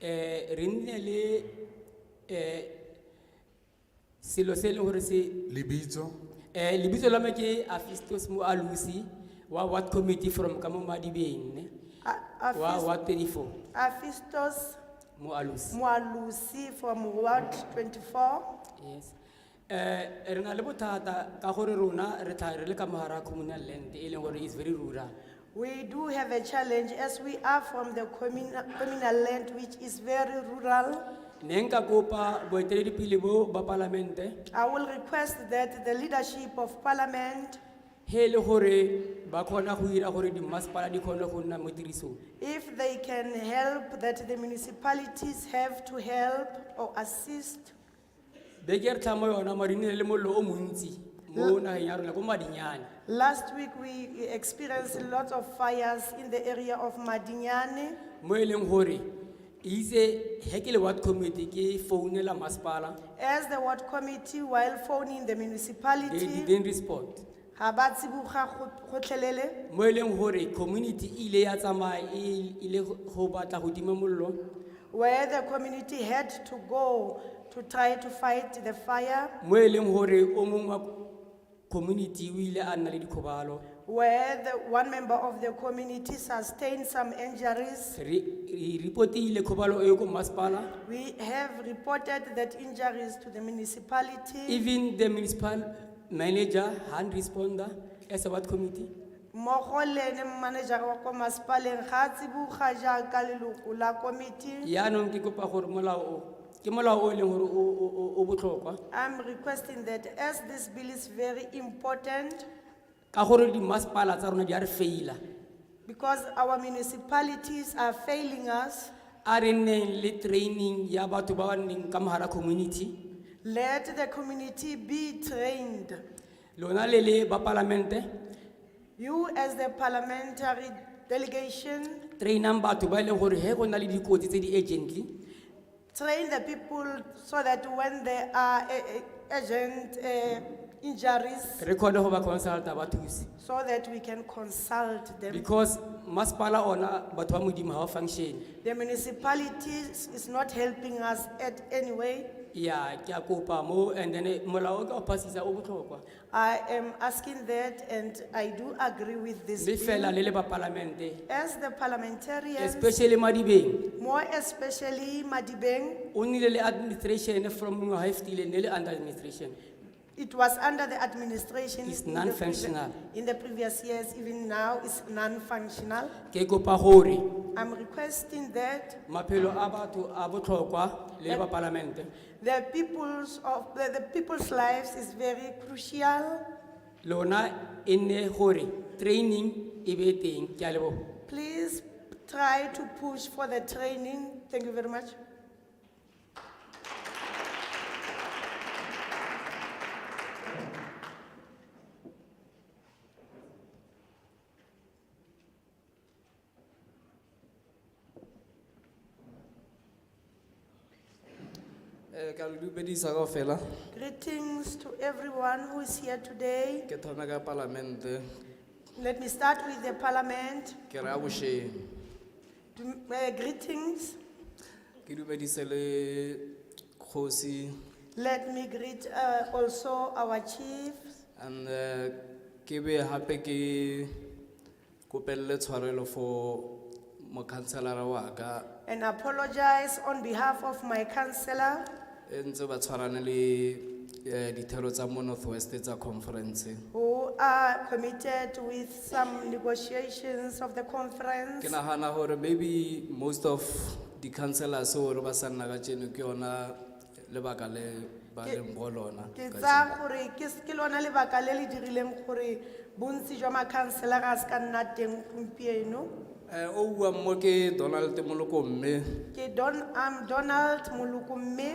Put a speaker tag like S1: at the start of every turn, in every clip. S1: eh, re nne le eh, selo se e leng gore se
S2: lebitso
S1: eh, lebitso la me ke afistos mo alusi wa ward committee from ka mo madibeng ne
S3: A-
S1: wa
S3: Afis-
S1: ward twenty-four
S3: Afistos
S1: mo alusi
S3: Mualusi from Ward twenty-four.
S1: yes eh, re na le bothata ka gore rona re tlhaga re le ka mogara communal land e leng gore is very rural
S3: We do have a challenge as we are from the communal, communal land which is very rural.
S1: ne nka kopa boeteledipele bo ba palamente
S3: I will request that the leadership of parliament,
S1: he e le gore ba kgona go dira gore dimmasepala di kgone go nna mo tirisong
S3: if they can help, that the municipalities have to help or assist.
S1: beke re tlhamo yona mare e nnile le mollo o montsi mo nageng ya rona ko madinyane
S3: Last week, we experienced lots of fires in the area of Madinyane.
S1: mo e leng gore e itse he ke le ward committee ke founela masepala
S3: As the ward committee, while phoning the
S1: they
S3: municipality,
S1: didn't respond
S3: ha ba tsiboga go- gotlhelele.
S1: mo e leng gore community e ile ya tsamaya e ile go batla go tima mollo
S3: where the community had to go to try to fight the fire,
S1: mo e leng gore o mongwe wa community o ile a nna le dikgobalo
S3: where the, one member of the community sustained some injuries.
S1: re re report-ile kgobalo eo ko masepala
S3: We have reported that injuries to the municipality.
S1: Even the municipal manager hand responder as a ward committee.
S3: Mogole le manager wa ko masepaleng ga a tsiboga jaaka leloko la committee.
S1: Yaanong ke kopa gore molao o, ke molao o e leng gore o, o, o- o botlhokwa.
S3: I'm requesting that as this bill is very important,
S1: Ka gore dimasepala tsa rona di a re faila.
S3: because our municipalities are failing us,
S1: A re nneng le training ya batho ba ba nneng ka mogara community.
S3: let the community be trained.
S1: Lona le le ba palamente,
S3: You as the parliamentary delegation,
S1: trainang batho ba e leng gore he go na le dikotsi tse di urgently,
S3: train the people so that when there are eh, eh, urgent eh, injuries,
S1: re kgone go ba consulta ba thuse.
S3: so that we can consult them.
S1: Because masepala ona batho ba modimo ha ba function.
S3: The municipalities is not helping us at any way.
S1: Yeah, ke a kopa mo and then eh, molao o ka o pasisa o botlhokwa.
S3: I am asking that and I do agree with this
S1: le fela
S3: bill.
S1: le le ba palamente
S3: As the parliamentarians,
S1: especially madibeng
S3: more especially Madibeng,
S1: o nnile le administration from ngwaga e fetileng ne le under administration
S3: it was under the administration.
S1: It's
S3: in the previ-
S1: non-functional.
S3: In the previous years, even now it's non-functional.
S1: ke kopa gore
S3: I'm requesting that
S1: maphelo a batho a botlhokwa le le ba palamente
S3: the people's of, the, the people's lives is very crucial.
S1: lona e nne gore training e be teng ke a leboga
S3: Please try to push for the training. Thank you very much.
S4: Eh, ka le dumedisa kao fela
S3: Greetings to everyone who is here today.
S4: ke thome ka palamente
S3: Let me start with the parliament.
S4: ke re a bošeng
S3: Do- uh, greetings.
S4: ke dumedise le kgosi
S3: Let me greet uh, also our chief.
S4: and eh, ke be gape ke kopelele tshwarelo for mokhanselara wa ka
S3: And apologize on behalf of my councillor.
S4: e ntse ba tshwarane le eh, dithero tsa mo northwest tsa conference
S3: who are committed with some negotiations of the conference.
S4: ke nagana gore maybe most of di-councellors ore ba sa nna ka tseno ke yona lebaka le ba
S3: Ke-
S4: leng go lona
S3: Ke
S4: ka
S3: tsa gore ke s- ke lona lebaka le le dirileng gore bontsi jwa makhanselara a se ka nna teng gompieno.
S4: Eh, o buang mo ke donald moloko mme
S3: Ke Don, I'm Donald Muluku Mme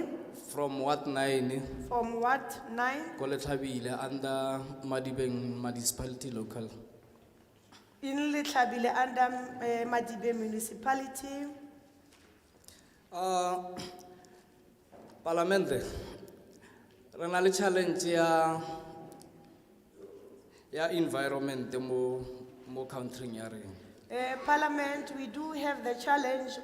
S4: from wat nine
S3: from Ward Nine
S4: ko letlhabile under madibeng municipality local
S3: in Litlabile under eh, Madibe municipality.
S4: uh, palamente re na le challenge ya ya environment mo mo countryng ya rena
S3: Eh, Parliament, we do have the challenge